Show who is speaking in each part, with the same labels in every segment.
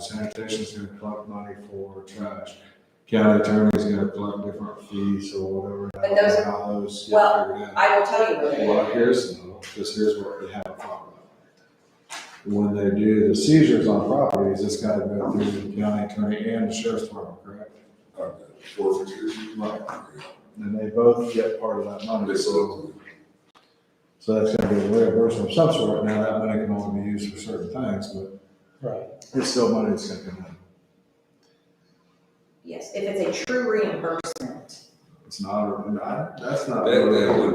Speaker 1: sanitation's gonna collect money for trash. County attorney's gonna collect different fees or whatever.
Speaker 2: But those-
Speaker 1: How those get
Speaker 2: well,
Speaker 1: figured out.
Speaker 2: I will tell you what it is.
Speaker 1: Well, here's, because here's what we have a problem with. When they do the seizures on properties, it's gotta go through the county attorney and the sheriff's department, correct?
Speaker 3: Forfeiture.
Speaker 1: Right. And they both get part of that money.
Speaker 3: This
Speaker 1: So
Speaker 3: is-
Speaker 1: that's gonna be a reimbursement of some sort. Now, that money can only be used for certain things, but
Speaker 4: Right.
Speaker 1: it's still money that's gonna come in.
Speaker 2: Yes, if it's a true reimbursement.
Speaker 1: It's not, a- I- that's not.
Speaker 3: That- that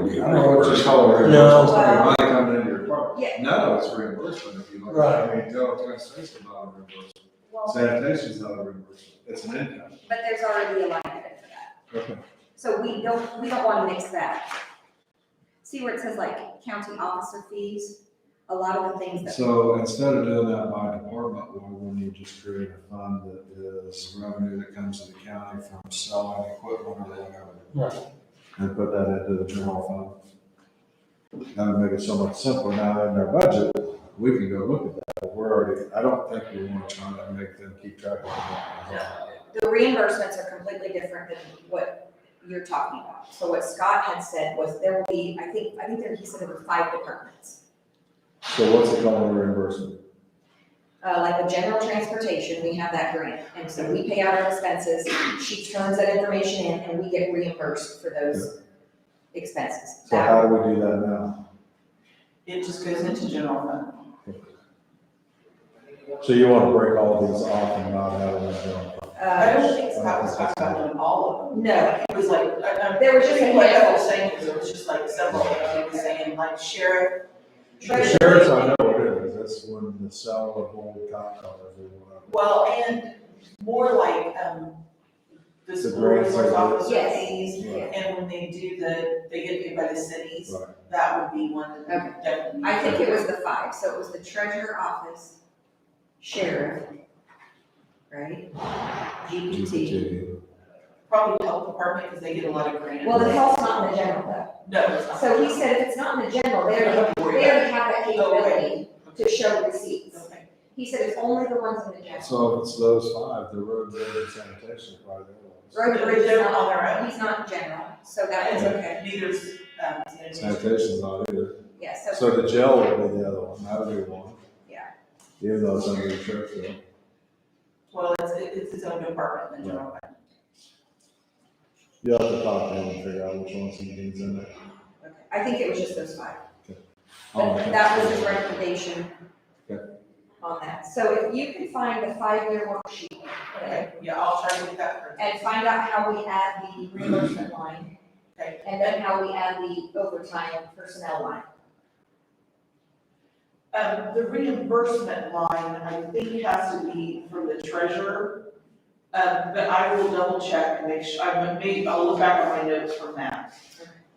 Speaker 3: would be
Speaker 1: I don't know what you call it.
Speaker 4: No.
Speaker 1: It's like Money coming into your apartment.
Speaker 2: Yeah,
Speaker 1: No, it's reimbursement if you look.
Speaker 4: Right.
Speaker 1: I mean, Delaware County State's not a reimbursement.
Speaker 2: well,
Speaker 1: Sanitation's not a reimbursement, it's an income.
Speaker 2: but there's already a line item for that.
Speaker 1: Okay.
Speaker 2: So we don't, we don't want to mix that. See where it says like county officer fees? A lot of the things that,
Speaker 1: So instead of doing that by department, why wouldn't you just create a fund that is revenue that comes to the county from selling equipment or whatever?
Speaker 4: Right.
Speaker 1: And put that into the general fund? That would make it so much simpler. Now in their budget, we can go look at that, but we're already, I don't think we want to try to make them keep track of that.
Speaker 2: the reimbursements are completely different than what you're talking about. So what Scott had said was there will be, I think, I think there, he said there were five departments.
Speaker 1: So what's it called, a reimbursement?
Speaker 2: Uh, like the general transportation, we have that grant, and so we pay out our expenses, she turns that information in, and we get reimbursed for those expenses.
Speaker 1: So
Speaker 2: That-
Speaker 1: how do we do that now?
Speaker 5: It just goes into general fund.
Speaker 1: So you want to break all these off and not have them in the general fund?
Speaker 5: I
Speaker 2: Uh,
Speaker 5: don't think Scott was talking about doing all of them.
Speaker 2: no,
Speaker 5: It was like, I, I'm.
Speaker 2: There was just a
Speaker 5: Like
Speaker 2: handful.
Speaker 5: Ethel was saying, it was just like several, of them. It was saying like sheriff.
Speaker 1: The
Speaker 2: Right.
Speaker 1: sheriff's, I know it is, that's when the sell of old cop cars and whatever.
Speaker 5: Well, and more like, um, the
Speaker 1: The
Speaker 5: school
Speaker 1: grants
Speaker 5: resource
Speaker 1: are-
Speaker 5: officer
Speaker 2: Yes.
Speaker 5: fees.
Speaker 2: yeah.
Speaker 5: And when they do the, they get paid by the cities,
Speaker 1: Right.
Speaker 5: that would be one that we definitely.
Speaker 2: I think it was the five, so it was the treasurer office, sheriff, right? GPT.
Speaker 1: GPT.
Speaker 5: Probably health department, because they get a lot of grants.
Speaker 2: Well, the health's not in the general
Speaker 5: No, it's
Speaker 2: though,
Speaker 5: not.
Speaker 2: so he said if it's not in the general, they already, they already have that capability to show receipts.
Speaker 5: Okay.
Speaker 2: He said it's only the ones in the general.
Speaker 1: So if it's those five, the road, bridge, and sanitation, probably the
Speaker 2: Road and bridge is
Speaker 5: They're
Speaker 2: not
Speaker 5: on their own.
Speaker 2: He's not in general, so that is okay,
Speaker 5: Neither's, um,
Speaker 1: ones.
Speaker 5: sanitation.
Speaker 1: Sanitation's not either.
Speaker 2: yeah,
Speaker 1: So
Speaker 2: so,
Speaker 1: the jail would be the other one, that would be one.
Speaker 2: Yeah.
Speaker 1: Even though it's under the sheriff's, though.
Speaker 5: Well, it's, it's its own department, the general fund.
Speaker 1: you'll have to talk to him and figure out which ones he needs in there.
Speaker 2: I think it was just those five.
Speaker 1: Oh,
Speaker 2: But
Speaker 1: okay.
Speaker 2: that was his recommendation
Speaker 1: Okay.
Speaker 2: on that. So if you can find the five-year worksheet
Speaker 5: Okay, yeah, I'll try to get that for,
Speaker 2: and find out how we add the reimbursement line
Speaker 5: okay.
Speaker 2: and then how we add the overtime personnel line.
Speaker 5: Um, the reimbursement line, I think has to be from the treasurer. Um, but I will double check and make sure, I may, I'll look back on my notes from that.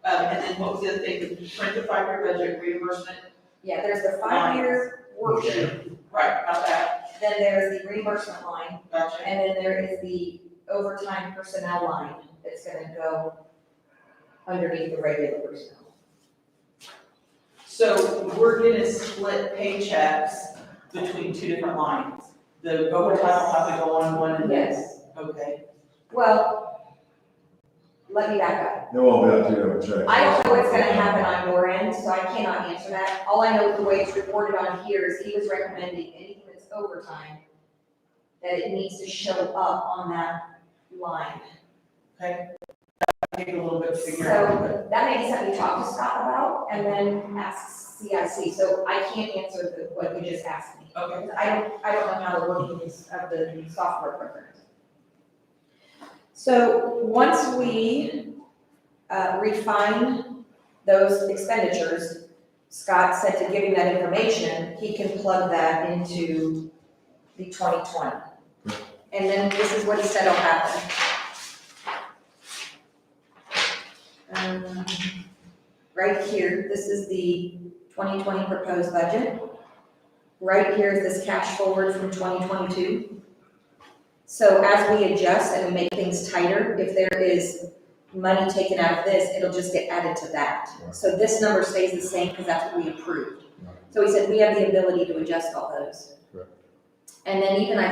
Speaker 5: Um, and then what was the other thing, print the five-year budget reimbursement,
Speaker 2: Yeah, there's the five-year worksheet,
Speaker 5: right, not that,
Speaker 2: then there's the reimbursement line,
Speaker 5: gotcha.
Speaker 2: and then there is the overtime personnel line that's gonna go underneath the regular personnel.
Speaker 5: So we're gonna split paychecks between two different lines. The overtime will have to go on one and then,
Speaker 2: Yes,
Speaker 5: okay,
Speaker 2: well, let me back up.
Speaker 1: It won't be up to you to check.
Speaker 2: I don't know what's gonna happen on your end, so I cannot answer that. All I know the way it's reported on here is he was recommending anything that's overtime, that it needs to show up on that line.
Speaker 5: take a little bit to figure out. but-
Speaker 2: So that may be something you talk to Scott about and then ask CIC. So I can't answer the, what you just asked me.
Speaker 5: Okay,
Speaker 2: I don't, I don't know how the workings of the software program. So once we uh, refine those expenditures, Scott said to give him that information, he can plug that into the twenty twenty. And then this is what he said will happen. Um, Right here, this is the twenty twenty proposed budget. Right here is this cash forward from twenty twenty-two. So as we adjust and we make things tighter, if there is money taken out of this, it'll just get added to that.
Speaker 1: Right.
Speaker 2: So this number stays the same because that's what we approved.
Speaker 1: Right.
Speaker 2: So he said we have the ability to adjust all those.
Speaker 1: Correct.
Speaker 2: And then even I